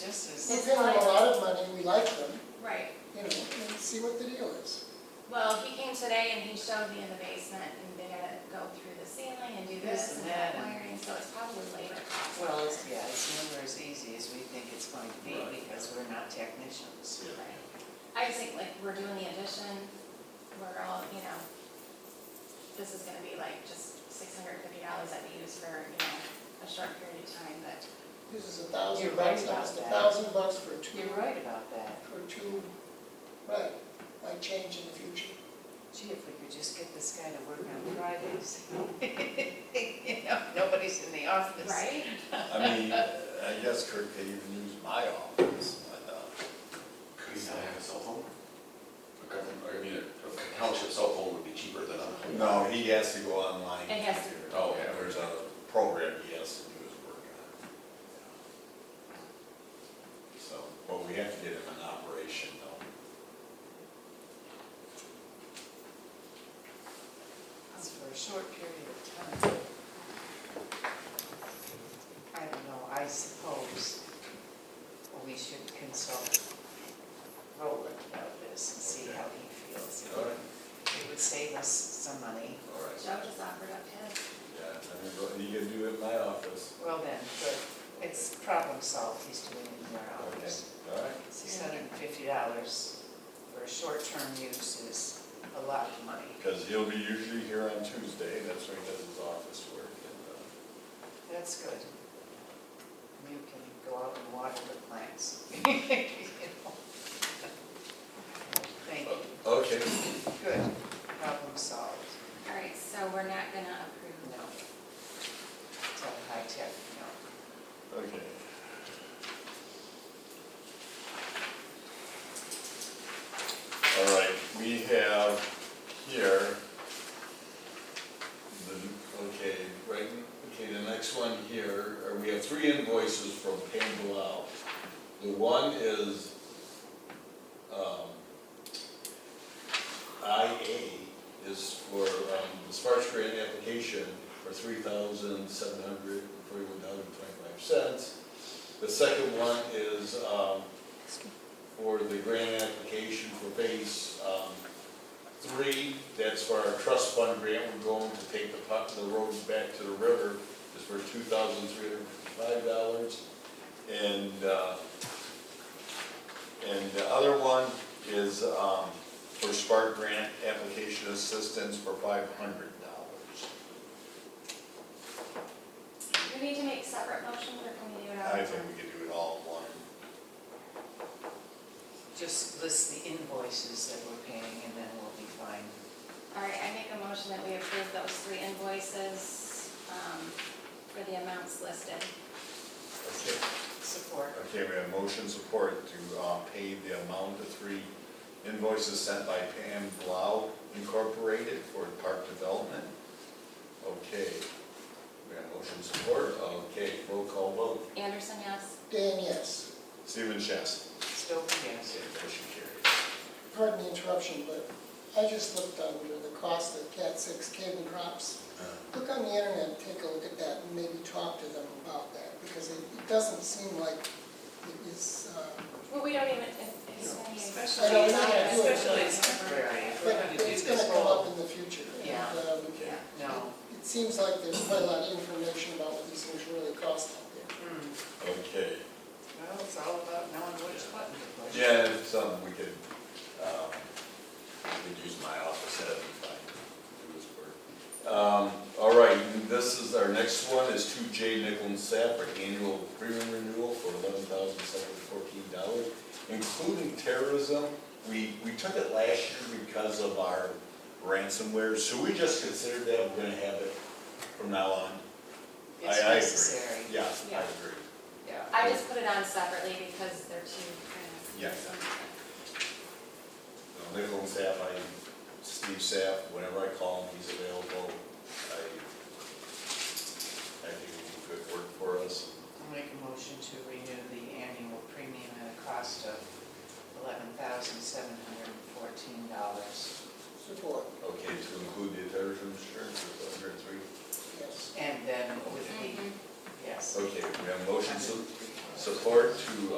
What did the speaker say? this We're is, It's paying them a like- lot of money, we like them, Right, you know, and see what the deal is. well, he came today and he showed me in the basement, and they gotta go through the ceiling and do this and that wiring, so it's probably labor cost. well, it's, yeah, it's never as easy as we think it's going to be Right. because we're not technicians. Yeah. Right. I just think like, we're doing the addition, we're all, you know, this is gonna be like just six hundred and fifty dollars that we use for, you know, a short period of time, but This is a You're thousand right bucks, about almost a that. thousand bucks for two, You're right about that. for two, right, might change in the future. Gee, if we could just get this guy to work on Fridays. You know, nobody's in the office. Right? I mean, I guess Kurt could even use my office, but, uh, Could he not have a cell phone? A government, I mean, a township cell phone would be cheaper than a. no, he has to go online. It has to. Oh, yeah. There's a program he has to do his work on. So, but we have to get him an operation though. It's for a short period of time. I don't know, I suppose we should consult Roland about this and see how he feels. All right, It would save us some money. all right. Joe just offered up his, Yeah, I mean, you can do it in my office. Well then, but it's problem solved, he's doing it in their Okay, office. all right. Six hundred and fifty dollars for a short-term use is a lot of money. Because he'll be usually here on Tuesday, that's when he does his office work. and, uh, That's good. And You can go out and water the plants. You know. Thank you, uh, Okay. good, problem solved, all right, so we're not gonna approve. no. Tell high tech, no. Okay. All right, we have here, the, okay, right, okay, the next one here, uh, we have three invoices from Pambelau. The one is, um, IA is for, um, the Sparks grant application for three thousand seven hundred forty-one dollars and twenty-five cents. The second one is, um, for the grant application for phase, um, three, that's for our trust fund grant, we're going to take the pot, the road back to the river, is for two thousand three hundred fifty-five dollars. And, uh, and the other one is, um, for Spark Grant Application Assistance for five hundred dollars. Do we need to make separate motions, or can we do it all? I think we could do it all in one. Just list the invoices that we're paying and then we'll be fine. All right, I make a motion that we approve those three invoices um, for the amounts listed. Okay. Support. Okay, we have motion support to um, pay the amount of three invoices sent by Pam Blau Incorporated for park development. Okay, we have motion support, okay, roll call vote. Anderson, yes? Dan, yes. Stephen Chess. Stover, yes. Okay, motion carries. Pardon the interruption, but I just looked under the cost of Cat six cable drops. Look on the internet, take a look at that, and maybe talk to them about that, because it it doesn't seem like it is, uh, Well, we don't even, it's gonna be- I know, we're not gonna do it. Especially it's temporary. If we're but gonna do it's gonna this come whole- up in the future. and, Yeah. um, Yeah. No. It seems like there's quite a lot of information about what these things really cost out there. Hmm. Okay, Well, it's all about knowing which button to push. yeah, if something we could, um, we could use my office head if I do this work. Um, All right, and this is, our next one is two J Nickel and Sapp, our annual premium renewal for eleven thousand seven hundred fourteen dollars, including terrorism. We, we took it last year because of our ransomware, so we just considered that we're gonna have it from now on. I- It's I agree. necessary. Yeah, I Yeah. agree. Yeah. I just put it on separately because they're two kind of. Yeah. Uh, Nickel and Sapp, I, Steve Sapp, whenever I call him, he's available. I, I think he do good work for us. I'll make a motion to renew the annual premium at a cost of eleven thousand seven hundred and fourteen dollars. Support, Okay, to include the terrorism insurance, it's under three. yes. And then with Mhm. the, yes. Okay, we have motion su- support to uh,